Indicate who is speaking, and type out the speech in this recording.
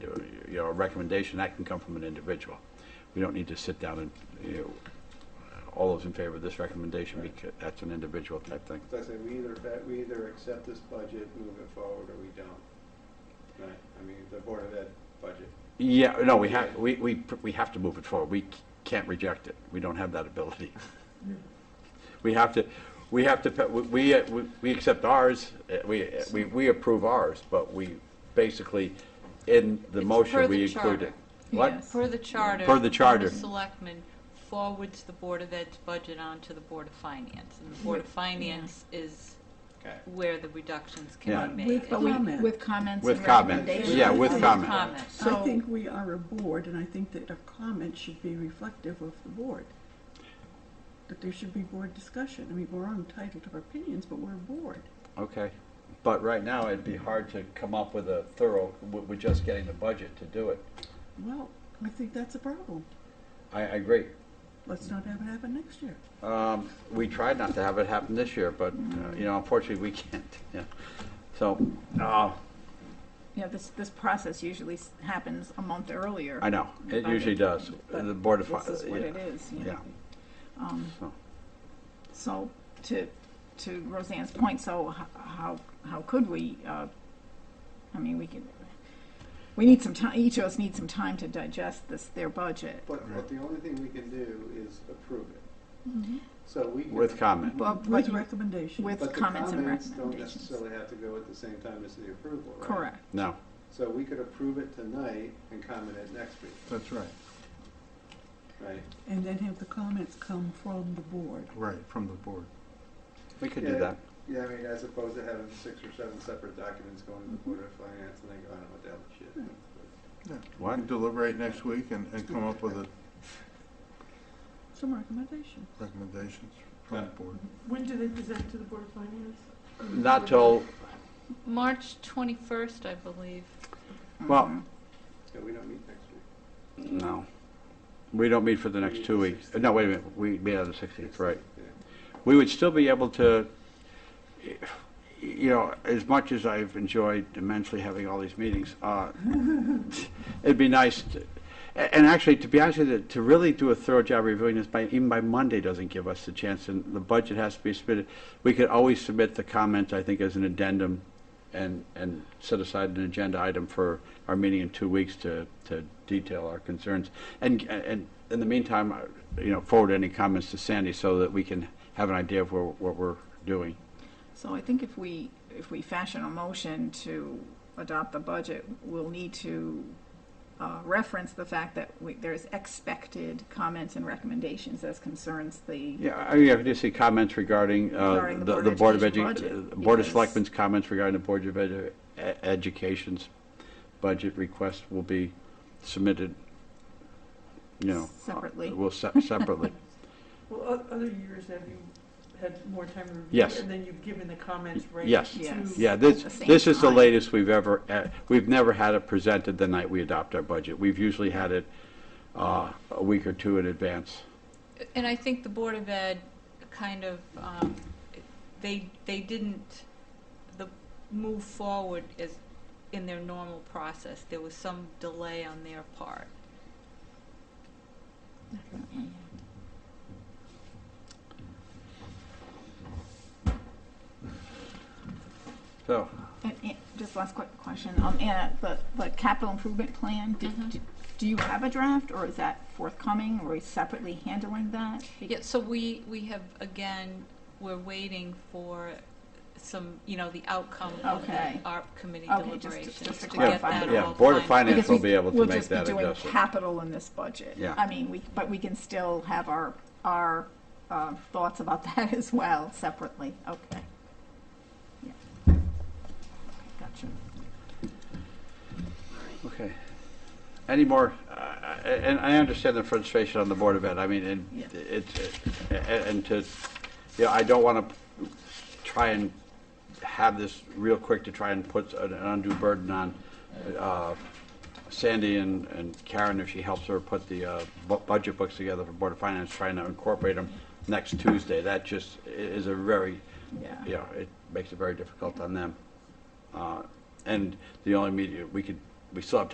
Speaker 1: you know, a recommendation, that can come from an individual. We don't need to sit down and, you know, all those in favor of this recommendation, because that's an individual type thing.
Speaker 2: So I say, we either, fa- we either accept this budget, move it forward, or we don't. Right, I mean, the Board of Ed budget.
Speaker 1: Yeah, no, we have, we, we, we have to move it forward. We can't reject it. We don't have that ability. We have to, we have to, we, uh, we, we accept ours, uh, we, uh, we, we approve ours, but we basically, in the
Speaker 3: It's
Speaker 1: motion,
Speaker 3: per
Speaker 1: we
Speaker 3: the
Speaker 1: include it.
Speaker 3: charter.
Speaker 1: What?
Speaker 3: Per the charter.
Speaker 1: Per the charter.
Speaker 3: Board of Selectmen forwards the Board of Ed's budget on to the Board of Finance, and the Board of Finance is
Speaker 2: Okay.
Speaker 3: where the reductions
Speaker 1: Yeah.
Speaker 3: can be made.
Speaker 4: With
Speaker 3: And we-
Speaker 4: comment.
Speaker 5: With comments
Speaker 1: With
Speaker 5: and
Speaker 1: comments.
Speaker 5: recommendations.
Speaker 1: Yeah, with
Speaker 3: With
Speaker 1: comment.
Speaker 3: comments.
Speaker 4: I
Speaker 5: So-
Speaker 4: think we are a board, and I think that a comment should be reflective of the board. That there should be board discussion. I mean, we're all entitled to our opinions, but we're a board.
Speaker 1: Okay. But right now, it'd be hard to come up with a thorough, with, with just getting the budget to do it.
Speaker 4: Well, I think that's a problem.
Speaker 1: I, I agree.
Speaker 4: Let's not have it happen next year.
Speaker 1: Um, we tried not to have it happen this year, but, uh, you know, unfortunately, we can't, yeah. So, uh,
Speaker 5: You know, this, this process usually s- happens a month earlier.
Speaker 1: I know, it
Speaker 5: But-
Speaker 1: usually does.
Speaker 5: but
Speaker 1: The Board of.
Speaker 5: This
Speaker 1: Fi-
Speaker 5: is what
Speaker 1: yeah.
Speaker 5: it is, you
Speaker 1: Yeah,
Speaker 5: know. Um,
Speaker 1: so,
Speaker 5: So to, to Roseanne's point, so h- how, how could we, uh, I mean, we could, we need some time, each of us needs some time to digest this, their budget.
Speaker 2: But, but the only thing we can do is approve it. So we. can-
Speaker 1: with comment.
Speaker 5: Well,
Speaker 4: With
Speaker 5: but you-
Speaker 4: recommendation.
Speaker 5: with-
Speaker 2: But the
Speaker 5: comments and
Speaker 2: comments don't
Speaker 5: recommendations.
Speaker 2: necessarily have to go at the same time as the approval, right?
Speaker 5: correct.
Speaker 1: No.
Speaker 2: So we could approve it tonight and comment it next week,
Speaker 6: That's right,
Speaker 2: right?
Speaker 4: And then have the comments come from the board.
Speaker 6: right, from the board.
Speaker 1: We could do
Speaker 2: Yeah.
Speaker 1: that.
Speaker 2: Yeah, I mean, as opposed to having six or seven separate documents going to the Board of Finance and they go, I don't know what the hell this shit. is."
Speaker 6: Yeah,
Speaker 1: What?
Speaker 6: We can deliberate next week and, and come up with a
Speaker 4: Some recommendation.
Speaker 6: recommendations from the board.
Speaker 7: When do they present to the Board of Finance?
Speaker 1: Not till,
Speaker 3: March 21st, I believe.
Speaker 5: Mm-hmm.
Speaker 1: well,
Speaker 2: So we don't meet next week.
Speaker 1: no. We don't meet for the next two weeks. No, wait a minute, we meet on the 16th, right.
Speaker 2: Yeah.
Speaker 1: we would still be able to, you know, as much as I've enjoyed immensely having all these meetings, uh, it'd be nice, to- a- and actually, to be honest with you, to really do a thorough job reviewing this, by, even by Monday doesn't give us the chance, and the budget has to be submitted. We could always submit the comments, I think, as an addendum, and, and set aside an agenda item for our meeting in two weeks to, to detail our concerns. And, and in the meantime, I- you know, forward any comments to Sandy so that we can have an idea of where, what we're doing.
Speaker 5: So I think if we, if we fashion a motion to adopt the budget, we'll need to uh, reference the fact that we, there's expected comments and recommendations as concerns the,
Speaker 1: Yeah, I mean, I just see comments regarding, uh,
Speaker 5: Regarding the
Speaker 1: the,
Speaker 5: Board
Speaker 1: the
Speaker 5: of
Speaker 1: Board of
Speaker 5: Education
Speaker 1: Edu,
Speaker 5: budget,
Speaker 1: uh, Board of
Speaker 5: because-
Speaker 1: Selectmen's comments regarding the Board of Edu, E- Education's budget request will be submitted, you know.
Speaker 5: Separately.
Speaker 1: Uh, Well, se- separately.
Speaker 7: Well, o- other years, have you had more time to review?
Speaker 1: Yes.
Speaker 7: And then you've given the comments right
Speaker 1: Yes.
Speaker 7: to.
Speaker 5: Yes.
Speaker 1: Yeah, this,
Speaker 5: At the same
Speaker 1: this is the
Speaker 5: time.
Speaker 1: latest we've ever, uh, we've never had it presented the night we adopt our budget. We've usually had it uh, a week or two in advance.
Speaker 3: And I think the Board of Ed kind of, um, they, they didn't, the, move forward as, in their normal process. There was some delay on their part.
Speaker 1: So,
Speaker 5: and- and just last quick question, um, Anna, the, the capital improvement plan, do,
Speaker 3: Mhm.
Speaker 5: do you have a draft, or is that forthcoming, or are we separately handling that?
Speaker 3: Yeah, so we, we have, again, we're waiting for some, you know, the outcome of the
Speaker 5: Okay.
Speaker 3: ARP committee
Speaker 5: Okay, just to-
Speaker 3: deliberations.
Speaker 5: just to
Speaker 3: get
Speaker 5: clarify.
Speaker 3: that
Speaker 1: Yeah,
Speaker 3: all
Speaker 1: Board of
Speaker 3: finalized.
Speaker 1: Finance
Speaker 5: Because
Speaker 1: will
Speaker 5: we-
Speaker 1: be able to
Speaker 5: we'll
Speaker 1: make
Speaker 5: just be
Speaker 1: that
Speaker 5: doing
Speaker 1: adjustment.
Speaker 5: Capital in this budget.
Speaker 1: Yeah.
Speaker 5: I mean, we, but we can still have our, our, uh, thoughts about that as well separately, okay. Yeah. Gotcha.
Speaker 1: okay. Any more, uh, and I understand the frustration on the Board of Ed, I mean, and
Speaker 5: Yeah.
Speaker 1: it's, uh, and and to, you know, I don't want to try and have this real quick to try and put an undue burden on uh, Sandy and and Karen, if she helps her put the uh, bu- budget books together for Board of Finance, trying to incorporate them next Tuesday. That just i- is a very,
Speaker 5: Yeah.
Speaker 1: you know, it makes it very difficult on them. Uh, And the only media, we could, we still have time